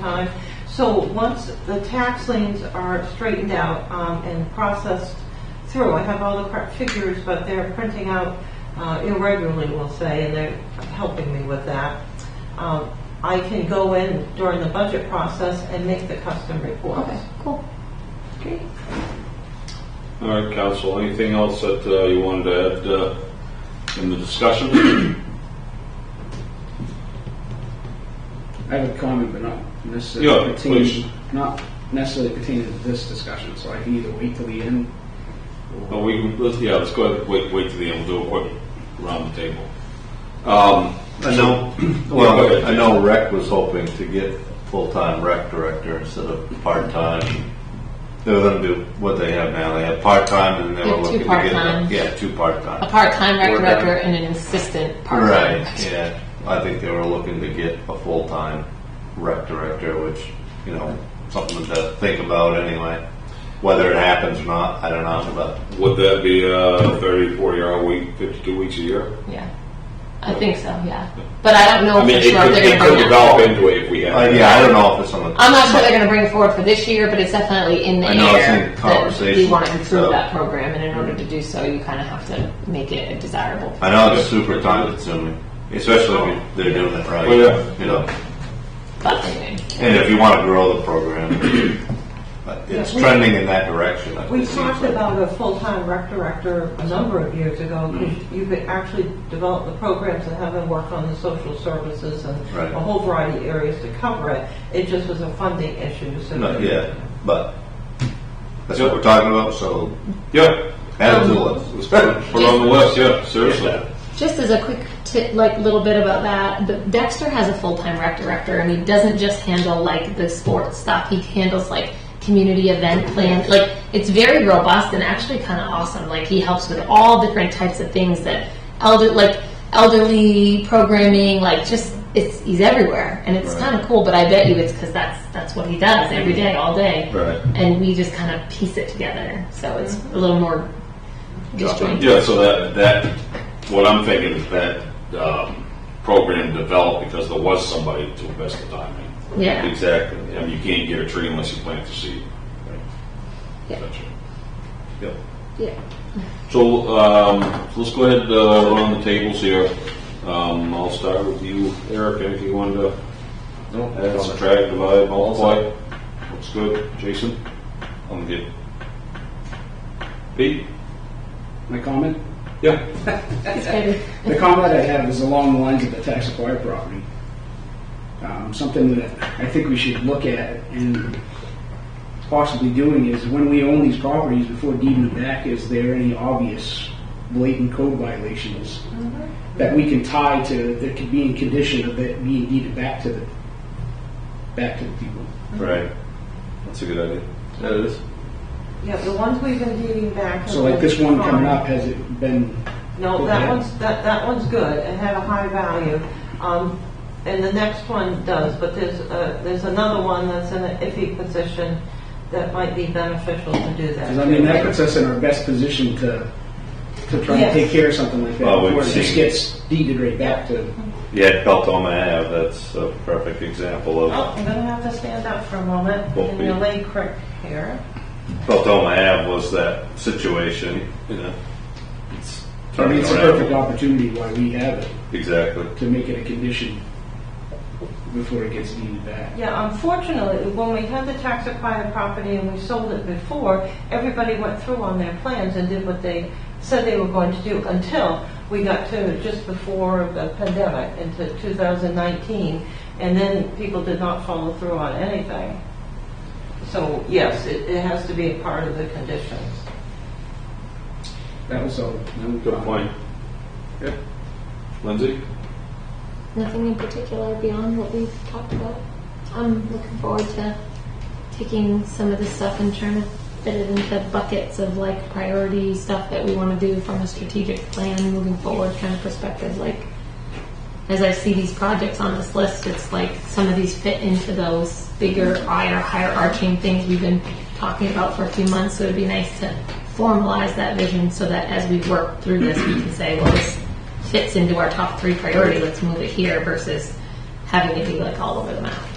time. So once the tax liens are straightened out um, and processed through, I have all the correct figures, but they're printing out uh, irregularly, we'll say, and they're helping me with that. Um, I can go in during the budget process and make the custom reports. Okay, cool. Great. All right, council, anything else that uh, you wanted to add uh, in the discussion? I have a comment, but not Yeah, necessarily please. pertaining, not necessarily pertaining to this discussion, so I can either wait till the end. or- Well, Oh, we, can- let's, yeah, let's go ahead, and wait, wait to the end, we'll do it around the table. Um, I know, Yeah, go ahead. well, I know rec was hoping to get full-time rec director instead of part-time. They were gonna do what they have now, they have part-time and they They were have two looking to get. them- part-times. Yeah, two A part-time. part-time rec Or that. director and an assistant part-time. Right, yeah, I think they were looking to get a full-time rec director, which, you know, something to think about anyway. Whether it happens or not, I don't know, but Would that be a 30, 40 hour week, 52 weeks a year? Yeah. I think so, yeah. But I don't know I mean, for it sure if could, they're it gonna could bring that. develop into it if we Uh, have. yeah, I don't know if it's on the. I'm not sure they're gonna bring it forward for this year, but it's definitely in the I know it's in air. that We conversation, wanna improve so. that program and in order to do so, you kinda have to make it a desirable. I know it's super time consuming, especially if they're doing it right. Oh, yeah. You know, But anyway, and if you want to grow the program, but it's Yeah, we- trending in that direction. I We think. talked about a full-time rec director a number of years ago, because you could actually develop the programs and have them work on the social services and Right. a whole variety of areas to cover it. It just was a funding issue, so. No, yeah, but that's what we're talking about, so Yeah, add it to the Um, list. put it on the list, yeah, seriously. Just as a quick tip, like little bit about that, the Dexter has a full time rec director, and he doesn't just handle like the sports stuff. He handles like community event plans. Like it's very robust and actually kind of awesome. Like he helps with all different types of things that elder like elderly programming. Like just it's he's everywhere, and it's kind of cool. But I bet you it's because that's that's what he does every day, all day. Right. And we just kind of piece it together, so it's a little more disjointed. Yeah, so that, that, what I'm thinking is that, um, program developed because there was somebody to invest the time in. Yeah. Exactly, and you can't get a tree unless you plant the seed. Yeah. Gotcha. Yep. yeah. So, um, let's go ahead, uh, run the tables here. Um, I'll start with you, Eric, anything you wanted to Nope. add, subtract, divide, multiply? Looks good, Jason? I'm good. Pete? My comment? Yeah. It's good. The comment I have is along the lines of the tax acquired property. Um, something that I think we should look at and possibly doing is when we own these properties before deeding them back, is there any obvious blatant code violations that we can tie to, that could be in condition of it being deeded back to the, back to the people? Right, that's a good idea. That is. Yeah, the ones we've been dating back. have So like been this one coming fine. up, has it been, No, Okay. that one's, that, that one's good, it had a high value. Um, and the next one does, but there's, uh, there's another one that's in an iffy position that might be beneficial to do that. because I mean, that puts us in our best position to, to try and Yes. take care of something like that Well, we've before it just seen- gets deeded right back to Yeah, Beltoma Ave, that's a perfect example Oh, of, I'm gonna have to stand up for a moment Well, in we- the Lake Creek here. Beltoma Ave was that situation, you know. It's I mean, turning it's a perfect around. opportunity why we have it, Exactly. to make it a condition before it gets deeded back. Yeah, unfortunately, when we had the tax acquired property and we sold it before, everybody went through on their plans and did what they said they were going to do until we got to just before the pandemic into 2019, and then people did not follow through on anything. So yes, it, it has to be a part of the conditions. That was all. Good point. Yep. Lindsay? Nothing in particular beyond what we've talked about. I'm looking forward to taking some of this stuff and trying to fit it into buckets of like priority stuff that we want to do from a strategic plan moving forward kind of perspective. Like, as I see these projects on this list, it's like some of these fit into those bigger, higher, higher arching things we've been talking about for a few months. So it'd be nice to formalize that vision so that as we work through this, we can say, well, this fits into our top three priority. Let's move it here versus having it be like all over the map.